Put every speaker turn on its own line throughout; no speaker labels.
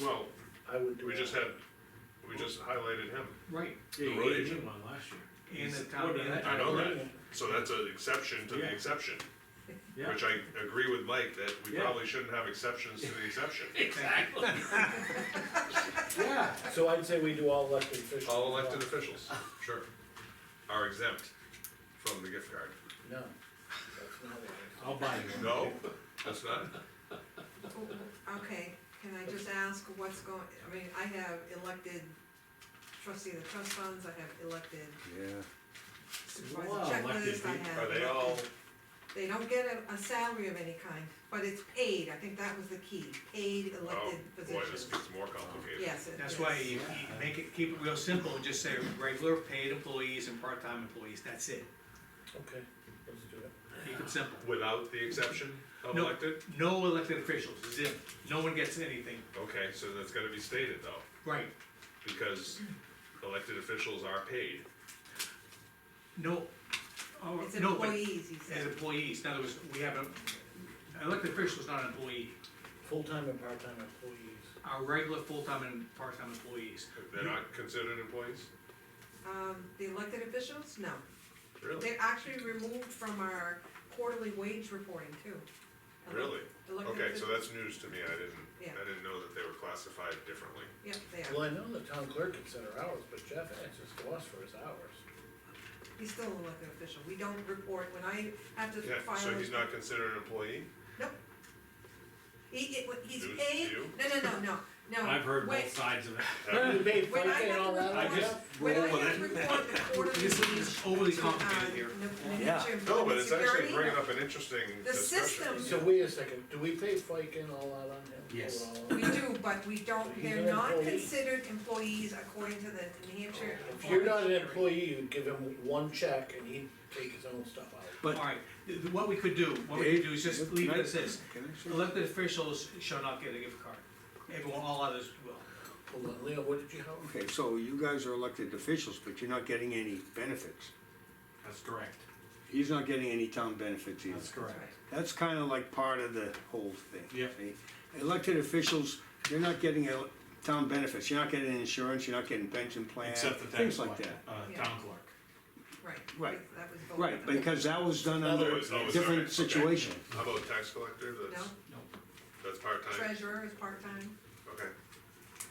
Well,
I would do
we just
that.
had, we just highlighted him,
Right.
Yeah,
The
you
road
gave
agent?
me one last year.
And the
He's-
town
what did
manager.
I know that,
Right.
so that's an exception to
Yeah.
the exception,
Yeah,
which I agree with Mike, that we
Yeah.
probably shouldn't have exceptions to the exception.
exactly. Yeah,
So I'd say we do all elected officials.
All elected officials, sure, are exempt from the gift card.
No. That's not it.
I'll buy you one.
No, that's not,
Okay, can I just ask what's going, I mean, I have elected trustee of the trust funds, I have elected
Wow,
supervisor checklist,
elected
I
people.
have.
are they all,
elected- They don't get a, a salary of any kind, but it's paid, I think that was the key, paid
oh,
elected
boy, this
positions.
gets more complicated.
Yes, it is.
That's why you, you make it, keep it real simple, and just say regular paid employees and part-time employees, that's it,
Okay, let's do it.
keep it simple.
Without the exception of
No.
elected?
No elected officials, zip, no one gets anything,
Okay, so that's gotta be stated though,
right,
because elected officials are paid.
no, oh,
It's
no, but
employees, he
as
said,
employees, in other words, we have a, elected official is not an employee,
Full-time and part-time employees.
our regular full-time and part-time employees.
They're not considered employees?
um, the elected officials, no,
Really?
they're actually removed from our quarterly wage reporting too.
Really?
Elected
Okay, so
officials-
that's news to me, I didn't,
Yeah.
I didn't know that they were classified differently.
Yep, they are,
Well, I know the town clerk can set her hours, but Jeff answers to us for his hours.
he's still an elected official, we don't report, when I have to
Yeah,
file.
so
a-
he's not considered an employee?
He, it, he's
News to
paid,
you?
no, no, no, no, no.
I've heard
When-
both sides of it.
Have you?
You paid
When
FICA
I
and all that?
had
I
to
yeah?
just
When I
roll with
have to
it.
report the quarterly. uh,
This is overly complicated here.
Yeah.
No, but it's actually bringing up an interesting
The
discussion.
system-
So wait a second, do we pay FICA and all that on him?
Yes.
Or all
We
that?
do, but we don't,
He's
they're
an
not
employee.
considered employees according to the New Hampshire.
If you're not an employee, you'd give him one check and he'd take his own stuff out.
All right, th- th- what we could do, what we could do is just
Can
leave
I-
it as this,
can I say-
elected officials shall not get a gift card, everyone, all others will.
Hold on, Leo, what did you have?
Okay, so you guys are elected officials, but you're not getting any benefits.
That's correct,
He's not getting any town benefits either.
that's
That's
correct.
right.
That's kinda like part of the whole thing.
Yep.
see? Elected officials, you're not getting el- town benefits, you're not getting insurance, you're not getting pension plans,
Except the
things
tax
like
collector,
that.
uh,
Yeah.
town clerk.
Right.
Right.
That was voted.
Right, because that was done
Other-
under
Oh,
a
it's alright,
different
okay.
situation.
How about tax collector,
No,
that's, that's part-time,
treasurer is part-time,
okay.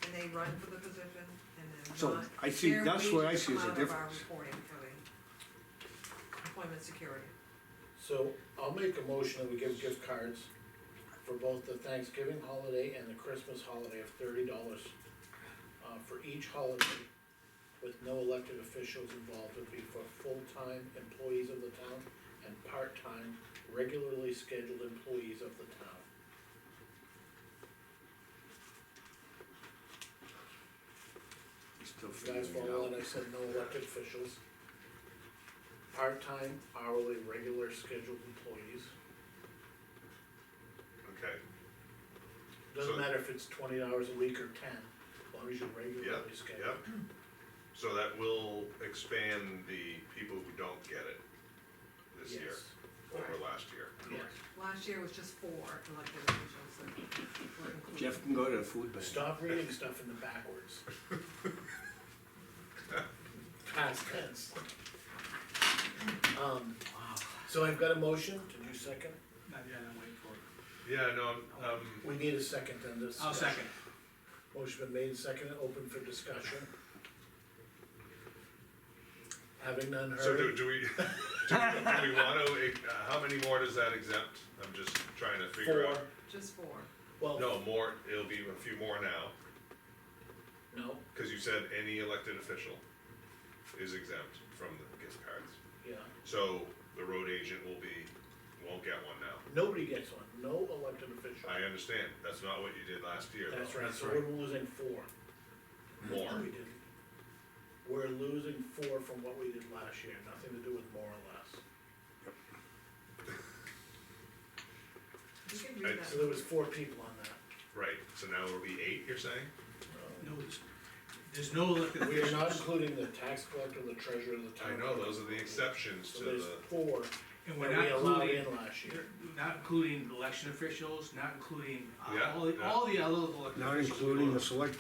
and they run for the position, and then not.
So, I see-
Their
that's what I
wages
see
come
as a
out of our
difference.
Reporting for the employment security.
So I'll make a motion that we give gift cards for both the Thanksgiving holiday and the Christmas holiday of thirty dollars uh, for each holiday with no elected officials involved, would be for full-time employees of the town and part-time, regularly scheduled employees of the town.
Still
You guys
figuring it
follow
out.
what I said, no elected officials. Part-time, hourly, regular scheduled employees.
Okay,
Doesn't
So-
matter if it's twenty hours a week or ten, as long as you're
yeah,
regularly scheduled.
yeah. So that will expand the people who don't get it this year,
Yes.
over last year.
Yeah.
Last year was just four elected officials that were included.
Jeff can go to the food bank.
Stop reading stuff in the backwards. Past tense. Um, so I've got a motion, did you second?
Not yet, I'm waiting for it.
Yeah, no, um,
We need a second on this.
I'll
discussion.
second.
Motion been made, seconded, open for discussion. Having none
so do,
heard,
do we, do we- do we wanna, uh, how many more does that exempt? I'm just trying to figure
four,
out.
Just four.
well,
No, more, it'll be a few more now,
no,
cause you said any elected official is exempt from the gift cards.
yeah,
So the road agent will be, won't get one now.
nobody gets one, no elected official.
I understand, that's not what you did last year though.
That's right, so we're losing four.
More,
We did. We're losing four from what we did last year, nothing to do with more or less.
You can read
So
that.
there was four people on that.
right, so now it'll be eight, you're saying?
No, there's, there's no elected
We are not
officials,
including the tax collector, the treasurer, the town.
I know, those are the exceptions
So
to
there's
the,
four
And
that
we're
we
not
allowed
including,
in last year.
not including election officials, not including uh,
Yeah,
all, the-
yeah.
all the other elected officials.
not including the select